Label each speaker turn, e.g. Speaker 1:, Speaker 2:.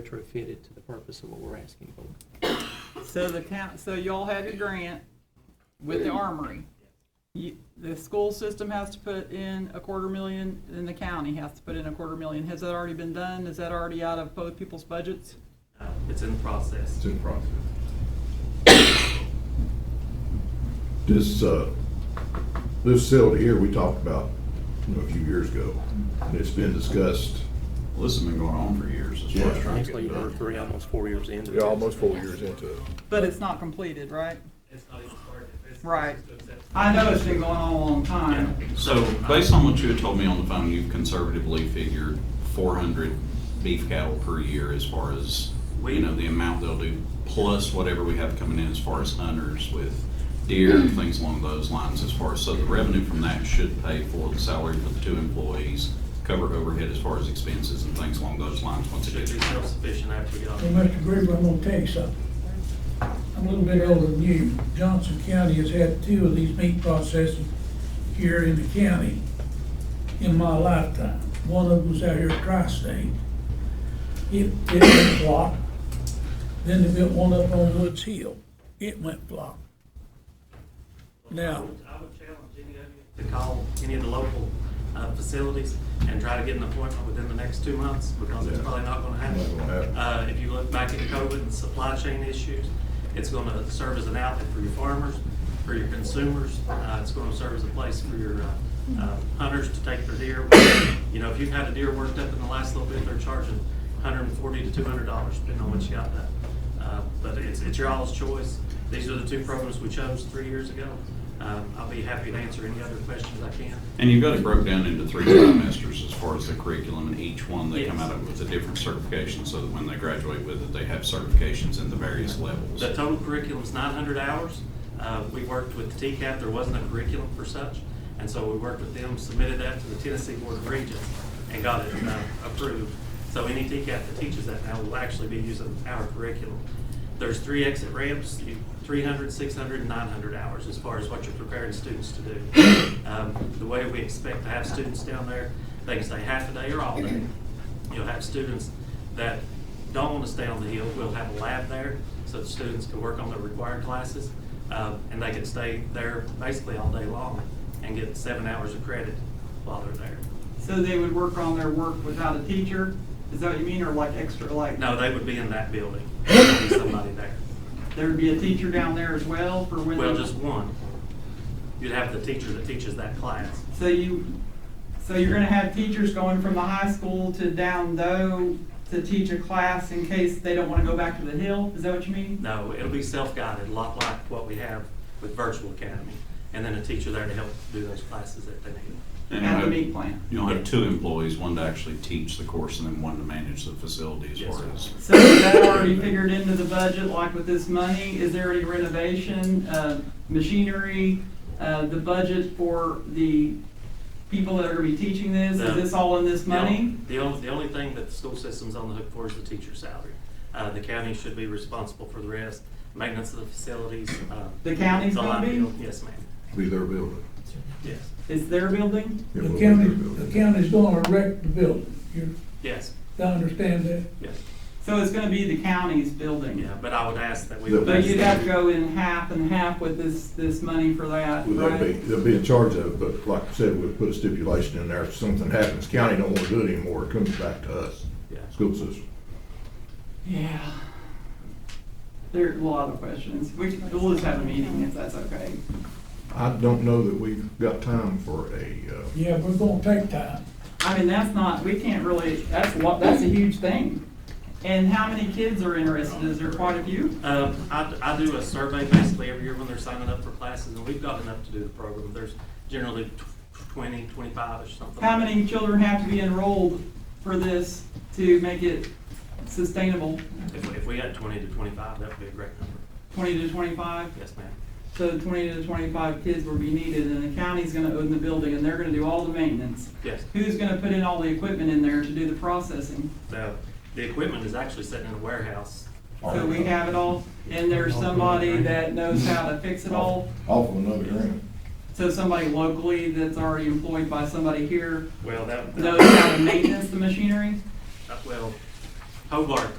Speaker 1: retrofitted to the purpose of what we're asking for.
Speaker 2: So the count, so y'all had a grant with the armory. You- The school system has to put in a quarter million, and the county has to put in a quarter million. Has that already been done? Is that already out of both people's budgets?
Speaker 3: Uh, It's in the process.
Speaker 4: It's in process. This, uh, this facility here, we talked about, you know, a few years ago, and it's been discussed.
Speaker 5: Well, this has been going on for years, as far as trying to
Speaker 1: Actually,
Speaker 5: get
Speaker 1: we're
Speaker 5: done.
Speaker 1: three, almost four years into
Speaker 6: Yeah,
Speaker 1: this.
Speaker 6: almost four years into it.
Speaker 2: But it's not completed, right?
Speaker 3: It's not even started. It's-
Speaker 2: Right.
Speaker 3: it's just-
Speaker 2: I know it's been going on a long
Speaker 3: Yeah.
Speaker 2: time.
Speaker 5: So based on what you had told me on the phone, you've conservatively figured four hundred beef cattle per year as far as, you know, the amount they'll do, plus whatever we have coming in as far as hunters with deer and things along those lines as far as, so the revenue from that should pay for the salary for the two employees, cover overhead as far as expenses and things along those lines once it
Speaker 3: Should
Speaker 5: gets.
Speaker 3: be self-sufficient after we get off.
Speaker 7: Hey, Mr. Gruber, I'm gonna tell you something. I'm a little bit older than you. Johnson County has had two of these meat processors here in the county in my lifetime. One of them was out here at Tri-State. It, it went flop. Then they built one up on Woods Hill. It went flop.
Speaker 3: I
Speaker 7: Now,
Speaker 3: would I would challenge any of you to call any of the local uh, facilities and try to get an appointment within the next two months, because it's
Speaker 4: Yeah.
Speaker 3: probably not gonna
Speaker 4: Not gonna
Speaker 3: happen.
Speaker 4: happen.
Speaker 3: Uh, If you look back at COVID and supply chain issues, it's gonna serve as an outlet for your farmers, for your consumers. Uh, It's gonna serve as a place for your uh, uh, hunters to take their deer. You know, if you've had a deer worked up in the last little bit, they're charging $140 to $200, depending on what you got done. Uh, But it's, it's your all's choice. These are the two programs we chose three years ago. Um, I'll be happy to answer any other questions I can.
Speaker 5: And you've got it broke down into three trimesters as far as the curriculum, and each one they come
Speaker 3: Yes.
Speaker 5: out of with a different certification, so that when they graduate with it, they have certifications in the various levels.
Speaker 3: The total curriculum is nine hundred hours. Uh, We worked with TCAP, there wasn't a curriculum for such, and so we worked with them, submitted that to the Tennessee Board of Regents, and got it uh, approved. So any TCAP that teaches that now will actually be using our curriculum. There's three exit ramps, you- 300, 600, and 900 hours as far as what you're preparing students to do. Um, The way we expect to have students down there, they can stay half a day or all day. You'll have students that don't want to stay on the hill, we'll have a lab there, so the students can work on their required classes, um, and they can stay there basically all day long and get seven hours of credit while they're there.
Speaker 2: So they would work on their work without a teacher? Is that what you mean, or like extra, like?
Speaker 3: No, they would be in that building, there'd be somebody there.
Speaker 2: There'd be a teacher down there as well for when?
Speaker 3: Well,
Speaker 2: they-
Speaker 3: just one. You'd have the teacher that teaches that class.
Speaker 2: So you, so you're gonna have teachers going from the high school to down low to teach a class in case they don't wanna go back to the hill? Is that what you mean?
Speaker 3: No, it'll be self-guided, a lot like what we have with Virtual Academy, and then a teacher there to help do those classes that they need.
Speaker 2: At
Speaker 5: And
Speaker 2: the
Speaker 5: you'll have-
Speaker 2: meat plant?
Speaker 5: You'll have two employees, one to actually teach the course and then one to manage the facility as
Speaker 3: Yes,
Speaker 5: far
Speaker 3: sir.
Speaker 5: as.
Speaker 2: So is that already figured into the budget, like with this money? Is there any renovation, uh, machinery, uh, the budget for the people that are gonna be teaching this? Is
Speaker 3: No.
Speaker 2: this all in this
Speaker 3: The only-
Speaker 2: money?
Speaker 3: The only, the only thing that the school system's on the hook for is the teacher's salary. Uh, the county should be responsible for the rest, maintenance of the facilities, uh.
Speaker 2: The county's
Speaker 3: the
Speaker 2: gonna
Speaker 3: light
Speaker 2: be?
Speaker 3: bill. Yes, ma'am,
Speaker 4: Be their building.
Speaker 3: yes,
Speaker 2: Is their building?
Speaker 4: It
Speaker 7: the
Speaker 4: will be their
Speaker 7: county,
Speaker 4: building.
Speaker 7: the county's gonna erect the building. You,
Speaker 3: yes,
Speaker 7: I understand that?
Speaker 3: yes,
Speaker 2: So it's gonna be the county's building?
Speaker 3: yeah, but I would ask that we.
Speaker 4: The-
Speaker 2: But you'd have to go in half and half with this, this money for that,
Speaker 4: Well, They'll be,
Speaker 2: right?
Speaker 4: they'll be in charge of it, but like I said, we'll put a stipulation in there. If something happens, county don't wanna do it anymore, it comes back to us,
Speaker 3: Yeah.
Speaker 4: school system.
Speaker 2: Yeah. There are a lot of questions. We, we'll just have a meeting if that's okay.
Speaker 4: I don't know that we've got time for a, uh,
Speaker 7: Yeah, we're gonna take time.
Speaker 2: I mean, that's not, we can't really, that's a lot, that's a huge thing. And how many kids are interested? Is there quite a few?
Speaker 3: Um, I, I do a survey basically every year when they're signing up for classes, and we've got enough to do the program. There's generally tw- twenty, twenty-five-ish, something.
Speaker 2: How many children have to be enrolled for this to make it sustainable?
Speaker 3: If, we- if we had twenty to twenty-five, that would be a great number,
Speaker 2: Twenty to twenty-five?
Speaker 3: yes, ma'am.
Speaker 2: So twenty to twenty-five kids will be needed and the county's gonna own the building and they're gonna do all the maintenance.
Speaker 3: Yes.
Speaker 2: Who's gonna put in all the equipment in there to do the processing?
Speaker 3: The, the equipment is actually sitting in a warehouse.
Speaker 2: So we have it all, and there's somebody that knows how to fix it all?
Speaker 4: off of another grant.
Speaker 2: So somebody locally that's already employed by somebody here
Speaker 3: Well, that.
Speaker 2: knows how to maintenance the machinery?
Speaker 3: Well, Hobart